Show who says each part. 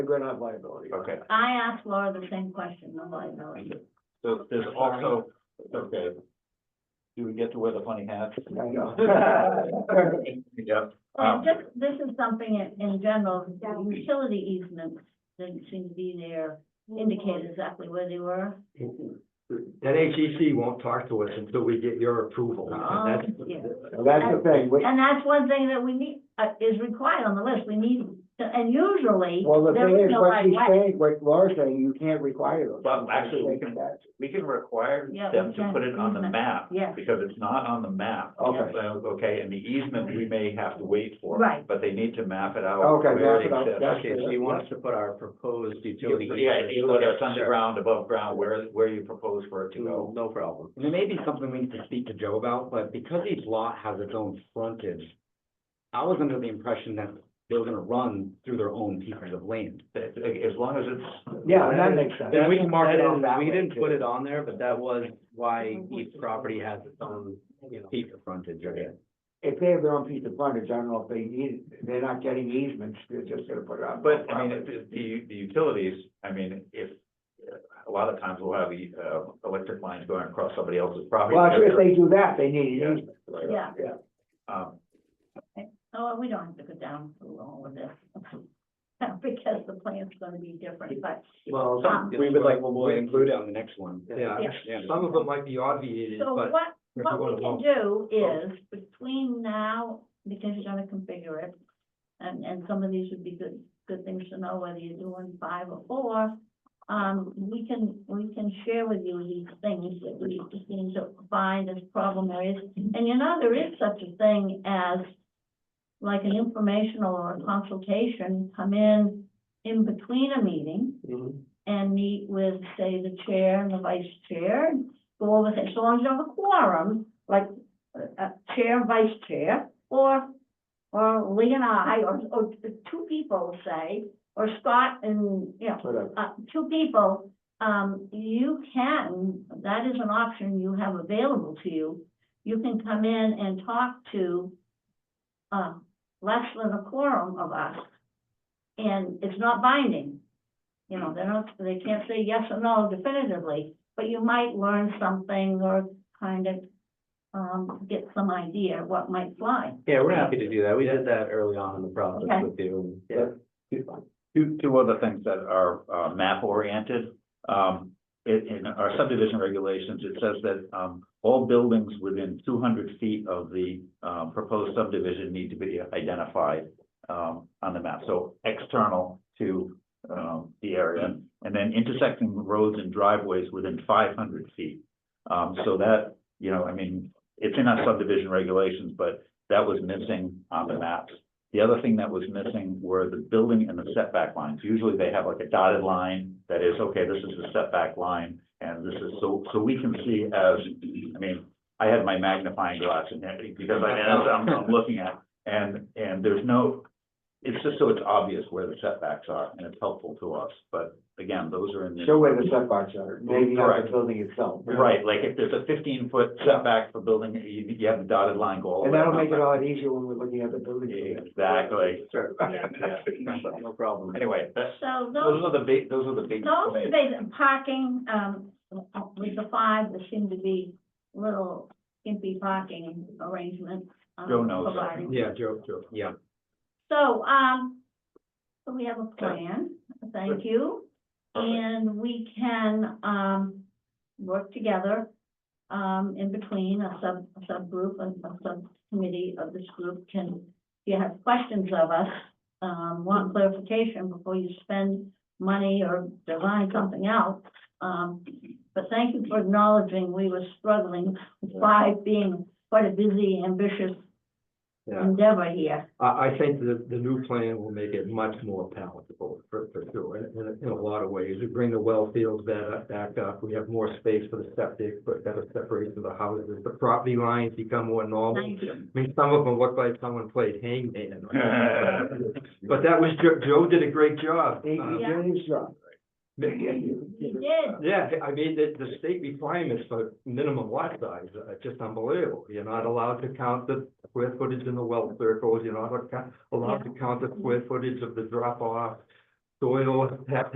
Speaker 1: We're gonna have liability.
Speaker 2: Okay,
Speaker 3: I asked Laura the same question, the liability.
Speaker 2: so there's also, okay. Do we get to wear the funny hats?
Speaker 1: I know.
Speaker 2: Yep.
Speaker 1: Oh.
Speaker 3: Well,
Speaker 2: Um,
Speaker 3: just, this is something in, in general, utility easements didn't seem to be there, indicated exactly where they were.
Speaker 4: NHEC E won't talk to us until we get your approval.
Speaker 3: Oh,
Speaker 4: And that's-
Speaker 3: yeah.
Speaker 1: Well, That's the thing, we,
Speaker 3: And that's one thing that we need, uh, is required on the list, we need, and usually,
Speaker 1: well, the
Speaker 3: there
Speaker 1: thing
Speaker 3: is
Speaker 1: is,
Speaker 3: no
Speaker 1: what
Speaker 3: right
Speaker 1: she's
Speaker 3: way.
Speaker 1: saying, what Laura's saying, you can't require those.
Speaker 2: Well, actually, we can-
Speaker 1: That's-
Speaker 2: We can require
Speaker 3: Yeah, we
Speaker 2: them to
Speaker 3: can.
Speaker 2: put it on the map.
Speaker 3: Yes.
Speaker 2: Because it's not on the map.
Speaker 1: Okay.
Speaker 2: So, Okay, and the easement we may have to wait for.
Speaker 3: Right.
Speaker 2: But they need to map it out.
Speaker 1: Okay,
Speaker 2: where
Speaker 1: map it out,
Speaker 2: exists.
Speaker 1: that's
Speaker 4: Okay, so you want us to put our proposed utility.
Speaker 2: Yeah,
Speaker 4: easement-
Speaker 2: whether it's
Speaker 4: Sure.
Speaker 2: underground, above ground, where, where you propose for it to
Speaker 4: No
Speaker 2: go.
Speaker 4: no problem. And it may be something we need to speak to Joe about, but because each lot has its own frontage, I was under the impression that they were gonna run through their own pieces of land.
Speaker 2: As as long as it's.
Speaker 1: Mm-hmm. Yeah, that makes sense.
Speaker 4: Then we can mark it
Speaker 1: That is
Speaker 4: off that
Speaker 1: that
Speaker 4: We
Speaker 1: way,
Speaker 4: didn't
Speaker 1: too.
Speaker 4: put it on there, but that was why each property has its own, you know, piece of frontage, I guess.
Speaker 1: If they have their own piece of frontage, I don't know if they need, they're not getting easements, they're just gonna put it on.
Speaker 2: But, I mean, the- the, the utilities, I mean, if, a lot of times we'll have the, uh, electric lines going across somebody else's property.
Speaker 1: Well, if they do that, they need an easement.
Speaker 3: Yeah,
Speaker 2: Um,
Speaker 3: oh, we don't have to go down through all of this. Because the plan's gonna be different, but,
Speaker 4: Well,
Speaker 3: some-
Speaker 4: we would like, we'll include it on the next one.
Speaker 5: Yeah,
Speaker 3: Yeah.
Speaker 4: Yeah.
Speaker 5: some of it might be obviated,
Speaker 3: so
Speaker 5: but
Speaker 3: what,
Speaker 5: if
Speaker 3: What
Speaker 5: you
Speaker 3: we can
Speaker 5: want
Speaker 3: do is between now, because you're gonna configure it, and, and some of these would be good, good things to know, whether you're doing five or four. Um, we can, we can share with you these things that we seem to find as problem areas. And you know, there is such a thing as like an informational or a consultation, come in in between a meeting
Speaker 2: Mm-hmm.
Speaker 5: to.
Speaker 3: and meet with, say, the chair and the vice chair, and go over things, so long as you have a quorum, like, uh, uh, chair and vice chair, or, or Lee and I, or, or t- two people, say, or Scott and, you know,
Speaker 1: Whatever.
Speaker 3: uh, two people, um, you can, that is an option you have available to you. You can come in and talk to, uh, less than a quorum of us, and it's not binding. You know, they're not, they can't say yes or no definitively, but you might learn something or kind of, um, get some idea what might fly.
Speaker 4: Yeah, we're happy to do that. We did that early on in the
Speaker 3: Okay.
Speaker 4: process with you.
Speaker 1: Yeah.
Speaker 2: two, two other things that are, uh, map oriented. Um, in, in our subdivision regulations, it says that, um, all buildings within two hundred feet of the, um, proposed subdivision need to be identified, um, on the map. So external to, um, the area. And then intersecting roads and driveways within five hundred feet. Um, so that, you know, I mean, it's in our subdivision regulations, but that was missing on the maps. The other thing that was missing were the building and the setback lines. Usually they have like a dotted line that is, okay, this is the setback line. And this is, so, so we can see as, I mean, I had my magnifying glass in there because I, as I'm, I'm looking at. And, and there's no, it's just so it's obvious where the setbacks are and it's helpful to us. But again, those are in the.
Speaker 1: Show where the setbacks are, maybe not the
Speaker 2: Correct.
Speaker 1: building itself.
Speaker 2: Right, like if there's a fifteen foot setback for building, you, you have a dotted line go all
Speaker 1: And
Speaker 2: the way.
Speaker 1: that'll make it
Speaker 2: around.
Speaker 1: a lot easier when we're looking at the building.
Speaker 2: Exactly.
Speaker 4: Sure.
Speaker 2: Yeah.
Speaker 4: No problem.
Speaker 2: Anyway, that's,
Speaker 3: So
Speaker 2: those
Speaker 3: those,
Speaker 2: are the big, those are the big.
Speaker 3: those are the basic, parking, um, with the five, there seem to be little skimpy parking arrangements. um,
Speaker 2: Joe knows.
Speaker 3: provided.
Speaker 4: Yeah, Joe, Joe, yeah.
Speaker 3: So, um, so we have a plan, thank you. And we can, um, work together, um, in between a sub, a subgroup, a, a subcommittee of this group can, if you have questions of us, um, want clarification before you spend money or design something else. Um, but thank you for acknowledging we were struggling by being quite a busy, ambitious
Speaker 5: Yeah.
Speaker 3: endeavor here.
Speaker 5: I, I think the, the new plan will make it much more palatable for, for sure, in- in, in a lot of ways. We bring the well fields back, up- uh, back up, we have more space for the septic, but better separation of the houses, the property lines become more normal.
Speaker 3: Thank you.
Speaker 5: I mean, some of them look like someone played hangman. But that was, Joe, Joe did a great job.
Speaker 1: He, he
Speaker 5: Uh,
Speaker 3: Yeah.
Speaker 1: did his job.
Speaker 3: You did.
Speaker 5: Yeah, I mean, the, the state requirements for minimum lot size are just unbelievable. You're not allowed to count the square footage in the well circles, you're not acco- allowed to count the square footage of the drop off. soil, tap